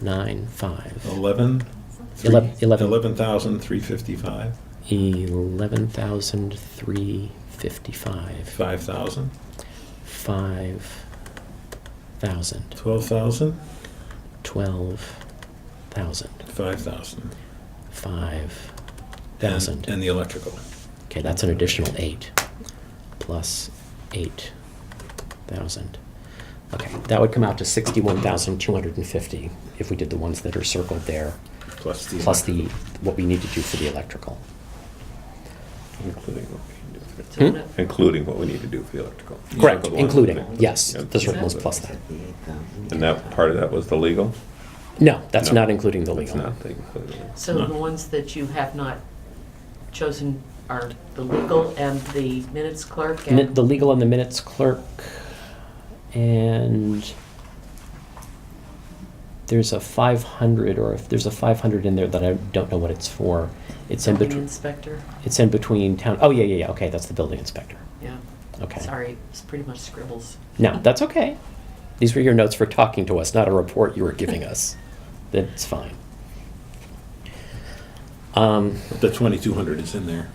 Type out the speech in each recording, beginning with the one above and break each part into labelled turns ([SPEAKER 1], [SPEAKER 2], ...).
[SPEAKER 1] nine five.
[SPEAKER 2] Eleven?
[SPEAKER 1] Eleven- eleven.
[SPEAKER 2] Eleven thousand three fifty-five,
[SPEAKER 1] Eleven thousand three fifty-five.
[SPEAKER 2] five thousand,
[SPEAKER 1] Five thousand.
[SPEAKER 2] twelve thousand,
[SPEAKER 1] Twelve thousand.
[SPEAKER 2] five thousand.
[SPEAKER 1] Five
[SPEAKER 2] And-
[SPEAKER 1] thousand.
[SPEAKER 2] And the electrical.
[SPEAKER 1] Okay, that's an additional eight, plus eight thousand. Okay, that would come out to sixty-one thousand two hundred and fifty if we did the ones that are circled there,
[SPEAKER 2] Plus the.
[SPEAKER 1] plus the, what we need to do for the electrical.
[SPEAKER 3] Including what we need to do
[SPEAKER 1] Hmm?
[SPEAKER 3] for- Including what we need to do for the electrical.
[SPEAKER 1] Correct,
[SPEAKER 3] Circle one,
[SPEAKER 1] including,
[SPEAKER 3] yeah.
[SPEAKER 1] yes,
[SPEAKER 3] Yeah.
[SPEAKER 1] the circle was plus that.
[SPEAKER 3] And that, part of that was the legal?
[SPEAKER 1] No, that's
[SPEAKER 3] No,
[SPEAKER 1] not including the
[SPEAKER 3] That's
[SPEAKER 1] legal.
[SPEAKER 3] not the including.
[SPEAKER 4] So the ones that you have not chosen are the legal and the minutes clerk
[SPEAKER 1] Mi- The
[SPEAKER 4] and,
[SPEAKER 1] legal and the minutes clerk, and there's a five hundred, or if there's a five hundred in there that I don't know what it's for. It's in
[SPEAKER 4] and the
[SPEAKER 1] between.
[SPEAKER 4] inspector?
[SPEAKER 1] It's in between town, oh, yeah, yeah, yeah, okay, that's the building inspector.
[SPEAKER 4] Yeah,
[SPEAKER 1] Okay.
[SPEAKER 4] sorry, it's pretty much scribbles.
[SPEAKER 1] No, that's okay. These were your notes for talking to us, not a report you were giving us. That's fine. Um,
[SPEAKER 2] The twenty-two hundred is in there.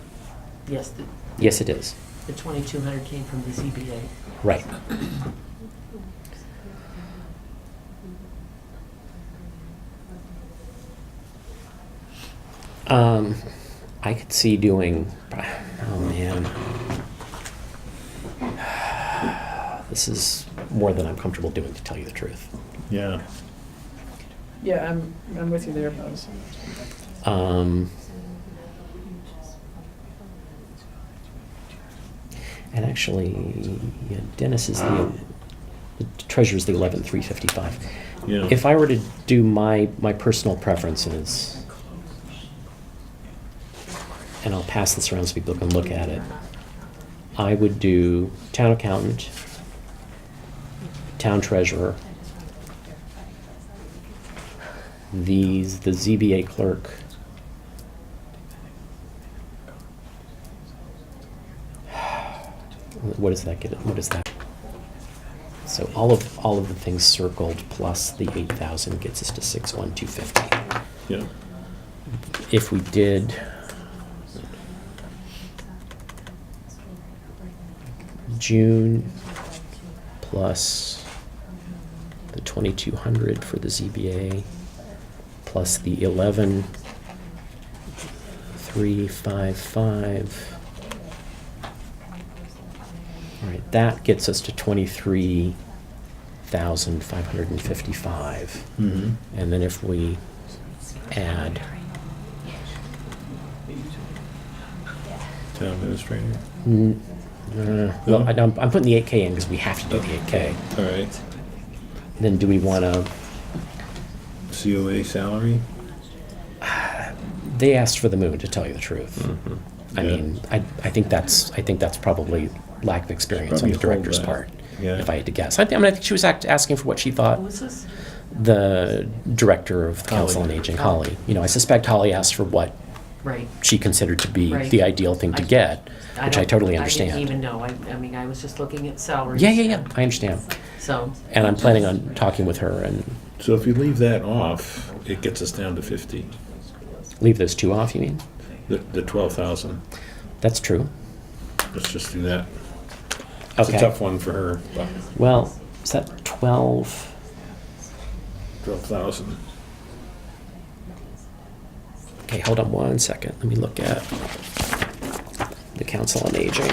[SPEAKER 4] Yes, the,
[SPEAKER 1] yes, it is.
[SPEAKER 4] the twenty-two hundred came from the ZBA.
[SPEAKER 1] Right. Um, I could see doing. Oh man, this is more than I'm comfortable doing, to tell you the truth.
[SPEAKER 2] Yeah.
[SPEAKER 5] Yeah, I'm, I'm with you there, Buzz.
[SPEAKER 1] Um, and actually, yeah, Dennis is the, the treasurer's the eleven three fifty five.
[SPEAKER 2] Yeah.
[SPEAKER 1] If I were to do my, my personal preferences, and I'll pass this around so people can look at it, I would do town accountant, town treasurer, these, the ZBA clerk. What does that get, what is that? So all of, all of the things circled plus the eight thousand gets us to six one two fifty.
[SPEAKER 2] Yeah.
[SPEAKER 1] If we did June plus the twenty-two hundred for the ZBA, plus the eleven three five five. All right, that gets us to twenty-three thousand five hundred and fifty-five.
[SPEAKER 2] Mm-hmm.
[SPEAKER 1] And then if we add,
[SPEAKER 2] Town administrator.
[SPEAKER 1] n- uh, well, I-
[SPEAKER 2] Hmm.
[SPEAKER 1] I'm, I'm putting the eight K in because we have to do the eight K.
[SPEAKER 2] All right.
[SPEAKER 1] Then do we want to,
[SPEAKER 2] COA salary.
[SPEAKER 1] they asked for the moon, to tell you the truth. I
[SPEAKER 2] Mm-hmm. Yeah.
[SPEAKER 1] mean, I, I think that's, I think that's probably lack of experience on
[SPEAKER 2] Probably
[SPEAKER 1] the
[SPEAKER 2] a
[SPEAKER 1] director's
[SPEAKER 2] holdback.
[SPEAKER 1] part,
[SPEAKER 2] Yeah.
[SPEAKER 1] if I had to guess. I thi- I mean, I think she was act- asking for what she
[SPEAKER 4] Who
[SPEAKER 1] thought
[SPEAKER 4] was this?
[SPEAKER 1] the director of Council on
[SPEAKER 2] Holly.
[SPEAKER 1] Aging, Holly. You know, I suspect Holly asked for what
[SPEAKER 4] Right.
[SPEAKER 1] she considered to be
[SPEAKER 4] Right.
[SPEAKER 1] the ideal thing to
[SPEAKER 4] I-
[SPEAKER 1] get, which I
[SPEAKER 4] don't-
[SPEAKER 1] totally
[SPEAKER 4] I
[SPEAKER 1] understand.
[SPEAKER 4] didn't even know, I, I mean, I was just looking at salaries.
[SPEAKER 1] Yeah, yeah, yeah, I understand.
[SPEAKER 4] So,
[SPEAKER 1] And I'm planning on talking with her and
[SPEAKER 2] So if you leave that off, it gets us down to fifty,
[SPEAKER 1] leave those two off, you mean?
[SPEAKER 2] the, the twelve thousand.
[SPEAKER 1] That's true.
[SPEAKER 2] Let's just do that. It's a
[SPEAKER 1] Okay.
[SPEAKER 2] tough one for her, but
[SPEAKER 1] Well, is that 12?
[SPEAKER 2] twelve thousand.
[SPEAKER 1] Okay, hold on one second. Let me look at the Council on Aging.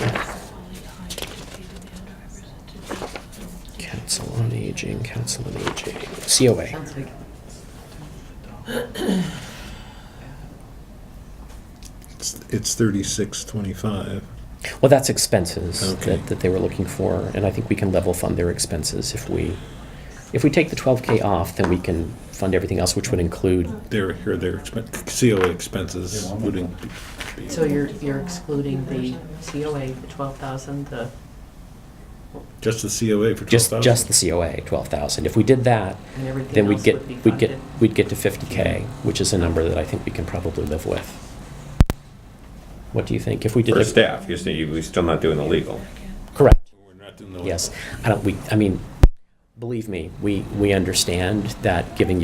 [SPEAKER 1] Council on Aging, Council on Aging, COA.
[SPEAKER 4] sounds like,
[SPEAKER 2] It's thirty-six twenty-five.
[SPEAKER 1] Well, that's expenses
[SPEAKER 2] Okay.
[SPEAKER 1] that, that they were looking for, and I think we can level fund their expenses if we, if we take the 12K off, then we can fund everything else, which would include,
[SPEAKER 2] Their, here, their expen, COA expenses would in-
[SPEAKER 4] so you're, you're excluding the COA, the twelve thousand, the,
[SPEAKER 2] Just the COA for twelve
[SPEAKER 1] just,
[SPEAKER 2] thousand?
[SPEAKER 1] just the COA, 12,000. If we did that,
[SPEAKER 4] and
[SPEAKER 1] then
[SPEAKER 4] everything
[SPEAKER 1] we'd
[SPEAKER 4] else
[SPEAKER 1] get,
[SPEAKER 4] would be funded.
[SPEAKER 1] we'd get, we'd get to 50K, which is a number that I think we can probably live with. What do you think? If we did,
[SPEAKER 3] For
[SPEAKER 1] the-
[SPEAKER 3] staff, you're saying we're still not doing the legal.
[SPEAKER 1] correct,
[SPEAKER 2] We're not doing the-
[SPEAKER 1] yes. I don't, we, I mean, believe me, we, we understand that giving you.